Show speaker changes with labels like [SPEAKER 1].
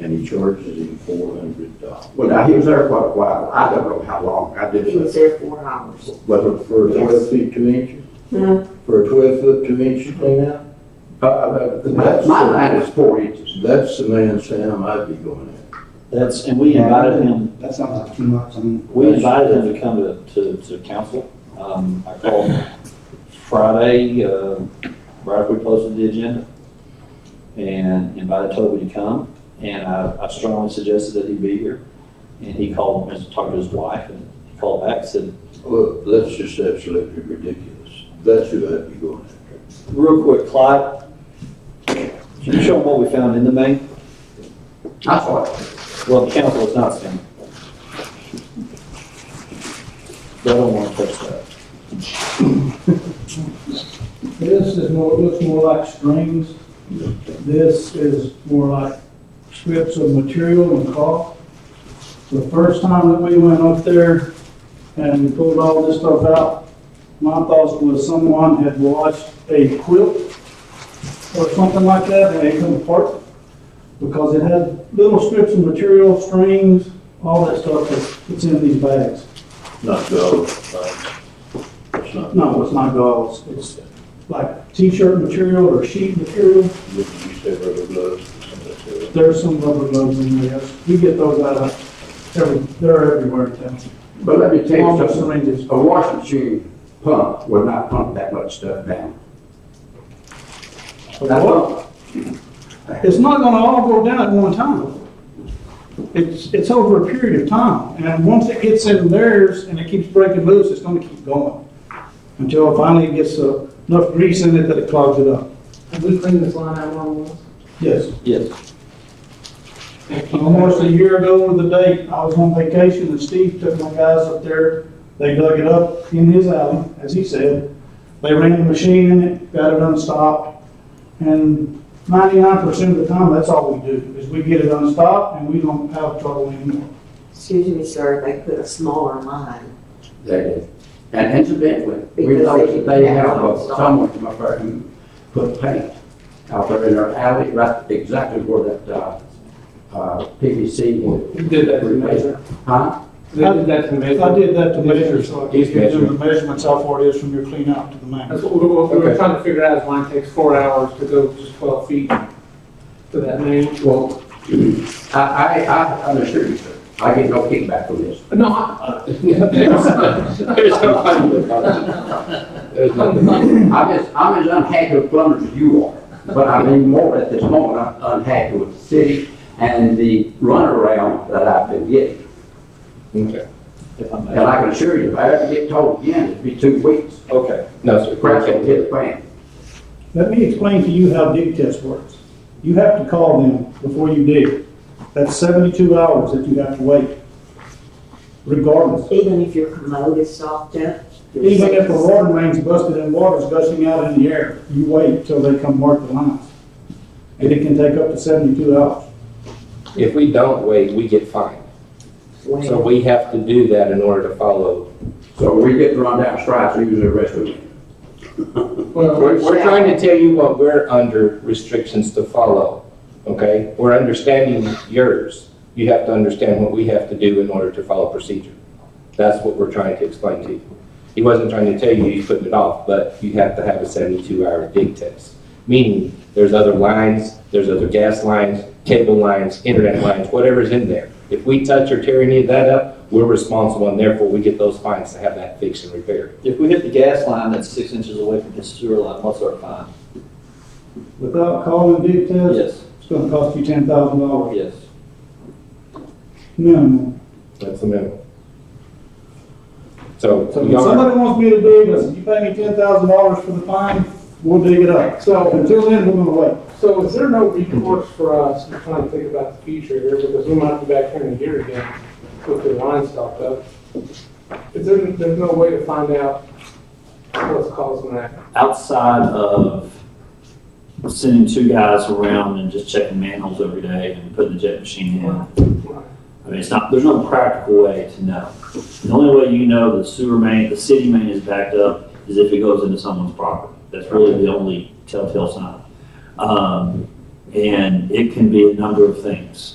[SPEAKER 1] and he charges him four hundred dollars.
[SPEAKER 2] Well, now, he was there quite a while. I don't know how long. I
[SPEAKER 3] He
[SPEAKER 2] did,
[SPEAKER 3] was there four hours.
[SPEAKER 1] But for a
[SPEAKER 3] Yes.
[SPEAKER 1] twelve feet two inches,
[SPEAKER 3] Hmm,
[SPEAKER 1] for a twelve foot two inch clean out,
[SPEAKER 2] uh, uh, my my line is four inches.
[SPEAKER 1] that's the man Sam I'd be going at.
[SPEAKER 4] That's, and we invited him,
[SPEAKER 5] That sounds like too much, I mean.
[SPEAKER 4] we invited him to come to, to, to council. Um, I called Friday, uh, right after we posted the agenda, and invited Toby to come, and I, I strongly suggested that he be here. And he called, and talked to his wife, and he called back, and said,
[SPEAKER 1] Look, that's just absolutely ridiculous. Oh. That's who I'd be going after.
[SPEAKER 4] real quick, Clyde, can you show them what we found in the main?
[SPEAKER 2] I thought,
[SPEAKER 4] Well, the council is not standing. They don't want to touch that.
[SPEAKER 6] This is more, looks more like strings. This is more like strips of material and cloth. The first time that we went up there and we pulled all this stuff out, my thoughts was someone had washed a quilt or something like that and it come apart because it had little strips of material, strings, all that stuff that's- that's in these bags.
[SPEAKER 1] Not those, uh, it's not.
[SPEAKER 6] No, it's not gauze. It's like t-shirt material or sheet material.
[SPEAKER 1] Look, you said rubber gloves, some of that stuff.
[SPEAKER 6] There's some rubber gloves in there, yes. We get those out of, every, they're everywhere in town.
[SPEAKER 2] but let me tell
[SPEAKER 6] Along
[SPEAKER 2] you
[SPEAKER 6] with
[SPEAKER 2] something.
[SPEAKER 6] syringes.
[SPEAKER 2] A washing machine pump would not pump that much stuff down. That's all.
[SPEAKER 6] It's not gonna all go down at one time. It's, it's over a period of time, and once it gets in theirs and it keeps breaking loose, it's gonna keep going. Until finally it gets uh, enough grease in it that it clogs it up.
[SPEAKER 3] and we cleaned the line out one once.
[SPEAKER 6] Yes.
[SPEAKER 4] Yes.
[SPEAKER 6] Almost a year ago to the date, I was on vacation and Steve took my guys up there. They dug it up in his alley, as he said. They ran the machine in it, got it unstopped. And ninety-nine percent of the time, that's all we do, is we get it unstopped and we don't have trouble anymore.
[SPEAKER 3] Excuse me, sir, they put a smaller line.
[SPEAKER 2] That is. And incidentally, we
[SPEAKER 3] Because
[SPEAKER 2] know
[SPEAKER 3] they-
[SPEAKER 2] that they have uh, someone from up there who put paint out there in our alley, right exactly where that, uh, uh, PVC would.
[SPEAKER 7] You did that to measure.
[SPEAKER 2] Huh?
[SPEAKER 7] They did that to measure.
[SPEAKER 6] I did that to measure, so I could
[SPEAKER 2] He's
[SPEAKER 6] give them
[SPEAKER 2] measuring.
[SPEAKER 6] the measurements how far it is from your clean out to the main.
[SPEAKER 7] That's what we, what we were
[SPEAKER 2] Okay.
[SPEAKER 7] trying to figure out, is mine takes four hours to go just twelve feet to that main.
[SPEAKER 2] Well, I, I, I, I'm assure you, sir, I get no kickback from this.
[SPEAKER 7] No, I, I- there's no fun with
[SPEAKER 2] There's nothing. I'm as, I'm as unhappy with plumbers as you are, but I mean more at this moment, I'm unhappy with the city and the runaround that I've been getting.
[SPEAKER 8] Okay.
[SPEAKER 4] If I
[SPEAKER 2] And
[SPEAKER 4] may.
[SPEAKER 2] I can assure you, if I ever get told again, it'll be two weeks,
[SPEAKER 4] Okay.
[SPEAKER 8] No, sir.
[SPEAKER 2] crap will hit the fan.
[SPEAKER 6] Let me explain to you how dig test works. You have to call them before you dig. That's seventy-two hours that you have to wait, regardless.
[SPEAKER 3] Even if your commode is soft up. your
[SPEAKER 6] Even if the
[SPEAKER 3] sink-
[SPEAKER 6] water mains busted and water's gushing out in the air, you wait till they come mark the lines. And it can take up to seventy-two hours.
[SPEAKER 8] If we don't wait, we get fined. So we have to do that in order to follow.
[SPEAKER 2] So we get run down stripes, we usually arrest them.
[SPEAKER 8] We're, we're trying to tell you what we're under restrictions to follow, okay? We're understanding yours. You have to understand what we have to do in order to follow procedure. That's what we're trying to explain to you. He wasn't trying to tell you he's putting it off, but you have to have a seventy-two hour dig test. Meaning, there's other lines, there's other gas lines, cable lines, internet lines, whatever's in there. If we touch or tear any of that up, we're responsible and therefore we get those fines to have that fixed and repaired.
[SPEAKER 4] If we hit the gas line that's six inches away from his sewer line, what's our fine?
[SPEAKER 6] Without calling dig test,
[SPEAKER 4] Yes,
[SPEAKER 6] it's gonna cost you ten thousand dollars
[SPEAKER 4] yes.
[SPEAKER 6] minimum.
[SPEAKER 8] That's the minimum. So.
[SPEAKER 6] So if
[SPEAKER 8] we are-
[SPEAKER 6] somebody wants me to dig, listen, you pay me ten thousand dollars for the fine, we'll dig it up. So until then, we're gonna wait.
[SPEAKER 7] So is there no recourse for us, I'm trying to think about the future here, because we might be back here in a year again with the line stopped up. Is there, there's no way to find out what's causing that?
[SPEAKER 4] Outside of sending two guys around and just checking manholes every day and putting the jet machine in, I mean, it's not, there's no practical way to know. The only way you know the sewer main, the city main is backed up is if it goes into someone's property. That's really the only telltale sign. Um, and it can be a number of things.